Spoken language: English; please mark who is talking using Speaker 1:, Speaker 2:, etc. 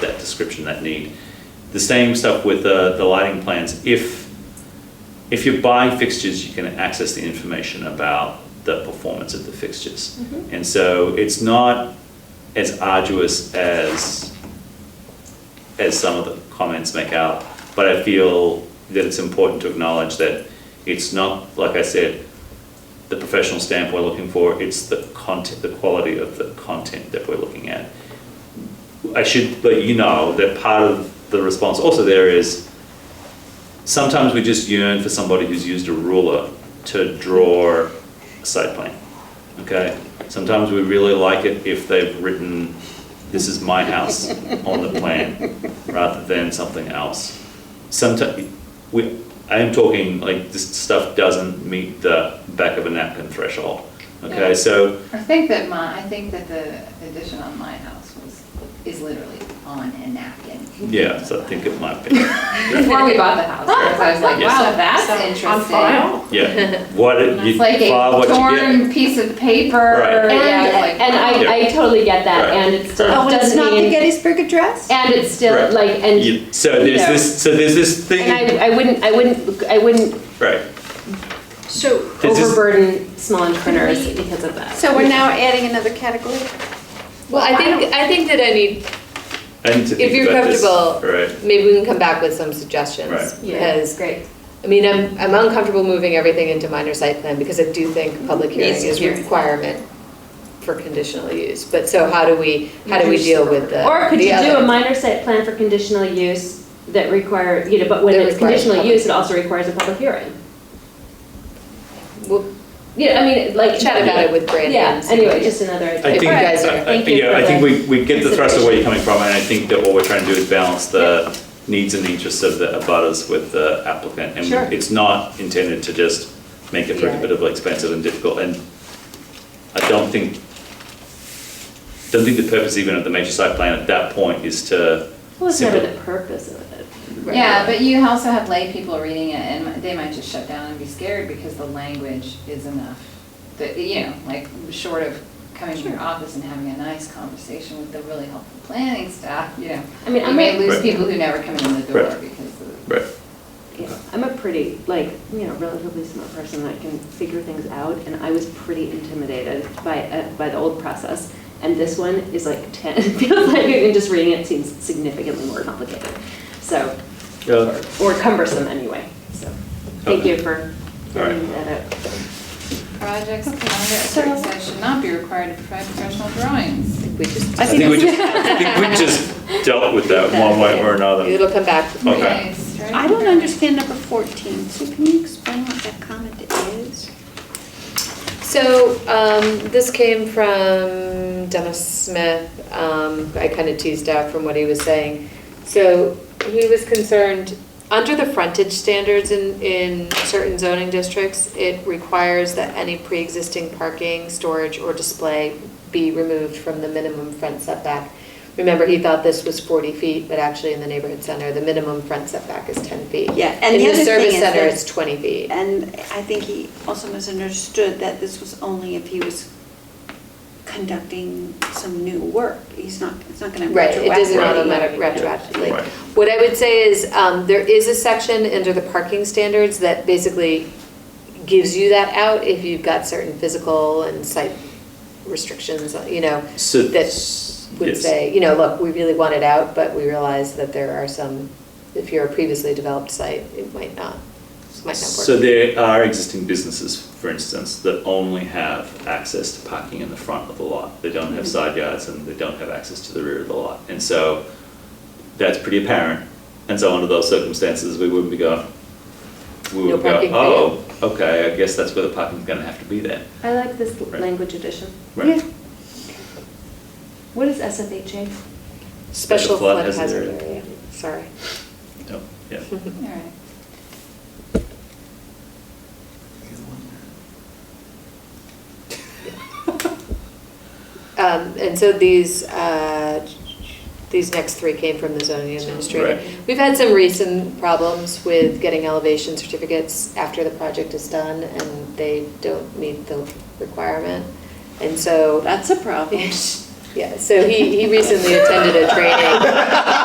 Speaker 1: description that need. The same stuff with uh, the, the lighting plans. If, if you buy fixtures, you can access the information about the performance of the fixtures. And so it's not as arduous as, as some of the comments make out, but I feel that it's important to acknowledge that it's not, like I said, the professional stamp we're looking for, it's the content, the quality of the content that we're looking at. I should let you know that part of the response also there is sometimes we just yearn for somebody who's used a ruler to draw a site plan. Okay? Sometimes we really like it if they've written, this is my house on the plan, rather than something else. Sometimes, we, I am talking, like, this stuff doesn't meet the back of a napkin threshold. Okay,
Speaker 2: Yeah.
Speaker 1: so,
Speaker 2: I think that my, I think that the addition on my house was, is literally on a napkin.
Speaker 1: yeah, so I think it might be.
Speaker 2: Before we bought the house, because I was like,
Speaker 1: Yes.
Speaker 2: wow, that's
Speaker 3: So, on
Speaker 2: interesting.
Speaker 3: file.
Speaker 1: Yeah, what it- you
Speaker 2: It's like
Speaker 1: file
Speaker 2: a
Speaker 1: what you get.
Speaker 2: torn piece of paper,
Speaker 1: Right.
Speaker 2: yeah,
Speaker 1: And-
Speaker 2: it's like.
Speaker 4: And, and I, I totally get that,
Speaker 1: Right.
Speaker 4: and it still
Speaker 3: Oh, and it's not
Speaker 4: doesn't
Speaker 3: the
Speaker 4: mean,
Speaker 3: Gettysburg Address?
Speaker 4: and it's still,
Speaker 1: Right.
Speaker 4: like, and,
Speaker 1: You- so there's
Speaker 4: you know.
Speaker 1: this. So there's this thing.
Speaker 4: and I, I wouldn't, I wouldn't, I wouldn't
Speaker 1: right.
Speaker 3: So,
Speaker 1: This is-
Speaker 4: overburden small entrepreneurs because of that.
Speaker 3: so we're now adding another category?
Speaker 5: Well, I think, I think that I need,
Speaker 1: I need to think
Speaker 5: if you're
Speaker 1: about this.
Speaker 5: comfortable,
Speaker 1: Right.
Speaker 5: maybe we can come back with some suggestions.
Speaker 1: Right.
Speaker 4: Yeah,
Speaker 5: Because,
Speaker 4: great.
Speaker 5: I mean, I'm, I'm uncomfortable moving everything into minor site plan because I do think public hearing
Speaker 4: Needs to
Speaker 5: is a
Speaker 4: hear.
Speaker 5: requirement for conditional use. But so how do we, how do we deal with the?
Speaker 4: Or could
Speaker 5: the
Speaker 4: you do a
Speaker 5: other?
Speaker 4: minor site plan for conditional use that require, you know, but when
Speaker 5: That
Speaker 4: it's
Speaker 5: requires
Speaker 4: conditional
Speaker 5: public-
Speaker 4: use, it also requires a public hearing?
Speaker 5: We'll
Speaker 4: Yeah, I mean, like.
Speaker 5: chat about it with Brandon.
Speaker 4: Yeah,
Speaker 5: and see what
Speaker 4: anyway,
Speaker 5: he-
Speaker 4: just another
Speaker 1: I
Speaker 4: idea.
Speaker 1: think.
Speaker 5: you guys are-
Speaker 1: I- I-
Speaker 4: Thank you
Speaker 1: yeah,
Speaker 4: for
Speaker 1: I think
Speaker 4: the
Speaker 1: we, we get the thrust of where
Speaker 4: consideration.
Speaker 1: you're coming from, and I think that what we're trying to do is balance the needs and interests of the abutters with the applicant, and
Speaker 4: Sure.
Speaker 1: it's not intended to just make it
Speaker 5: Yeah.
Speaker 1: prohibitively expensive and difficult. And I don't think don't think the purpose even of the major site plan at that point is to
Speaker 4: Well, it's never
Speaker 1: simply-
Speaker 4: the purpose of it.
Speaker 2: Yeah, but you also have lay people reading it, and they might just shut down and be scared because the language is enough. That, you know, like, short of coming to your office and having a nice conversation with the really helpful planning staff, you know.
Speaker 4: I mean,
Speaker 2: You
Speaker 4: I'm
Speaker 2: may
Speaker 4: a-
Speaker 2: lose
Speaker 1: Right.
Speaker 2: people who never come in the door
Speaker 1: Right.
Speaker 2: because of.
Speaker 1: right.
Speaker 4: Yeah, I'm a pretty, like, you know, relatively smart person that can figure things out, and I was pretty intimidated by, uh, by the old process. And this one is like 10, it feels like, and just reading it seems significantly more complicated, so,
Speaker 1: Yeah.
Speaker 4: or cumbersome anyway, so. Thank you for
Speaker 1: All right.
Speaker 4: bringing that up.
Speaker 2: Projects, calendar, et cetera, should not be required to provide professional drawings.
Speaker 5: We just.
Speaker 1: I think we just, I think we just dealt with that one way or another.
Speaker 5: It'll come back before
Speaker 1: Okay.
Speaker 2: Okay, strike
Speaker 3: I don't
Speaker 2: that.
Speaker 3: understand number 14, so can you explain what that comment is?
Speaker 5: So um, this came from Dennis Smith. Um, I kind of teased out from what he was saying. So he was concerned, under the frontage standards in, in certain zoning districts, it requires that any pre-existing parking, storage, or display be removed from the minimum front setback. Remember, he thought this was 40 feet, but actually in the neighborhood center, the minimum front setback is 10 feet.
Speaker 3: Yeah, and the
Speaker 5: In
Speaker 3: other
Speaker 5: the service
Speaker 3: thing is
Speaker 5: center,
Speaker 3: that-
Speaker 5: it's 20 feet.
Speaker 3: And I think he also misunderstood that this was only if he was conducting some new work. He's not, it's not going to
Speaker 5: Right,
Speaker 3: retroactively.
Speaker 5: it doesn't
Speaker 1: Right.
Speaker 5: automatic
Speaker 4: Right.
Speaker 5: retroactively.
Speaker 1: Right.
Speaker 5: What I would say is, um, there is a section under the parking standards that basically gives you that out if you've got certain physical and site restrictions, uh, you know,
Speaker 1: So-
Speaker 5: that would
Speaker 1: yes.
Speaker 5: say, you know, look, we really want it out, but we realize that there are some, if you're a previously developed site, it might not, might not
Speaker 1: So
Speaker 5: work.
Speaker 1: there are existing businesses, for instance, that only have access to parking in the front of the lot. They don't have
Speaker 5: Mm-hmm.
Speaker 1: side yards and they don't have access to the rear of the lot. And so that's pretty apparent. And so under those circumstances, we wouldn't be going, we
Speaker 5: No
Speaker 1: would go,
Speaker 5: parking for
Speaker 1: oh, okay, I guess that's where the parking's gonna have to be then.
Speaker 4: I like this
Speaker 1: Right.
Speaker 4: language addition.
Speaker 1: Right.
Speaker 4: What is SFHA?
Speaker 5: Special flood hazard area, sorry.
Speaker 1: No, yeah.
Speaker 2: All right.
Speaker 5: Mm-hmm. Um, And so these, uh, these next three came from the zoning administrator.
Speaker 1: Right.
Speaker 5: We've had some recent problems with getting elevation certificates after the project is done and they don't meet the requirement. And so,
Speaker 3: That's a problem.
Speaker 5: yeah, so he, he recently attended a training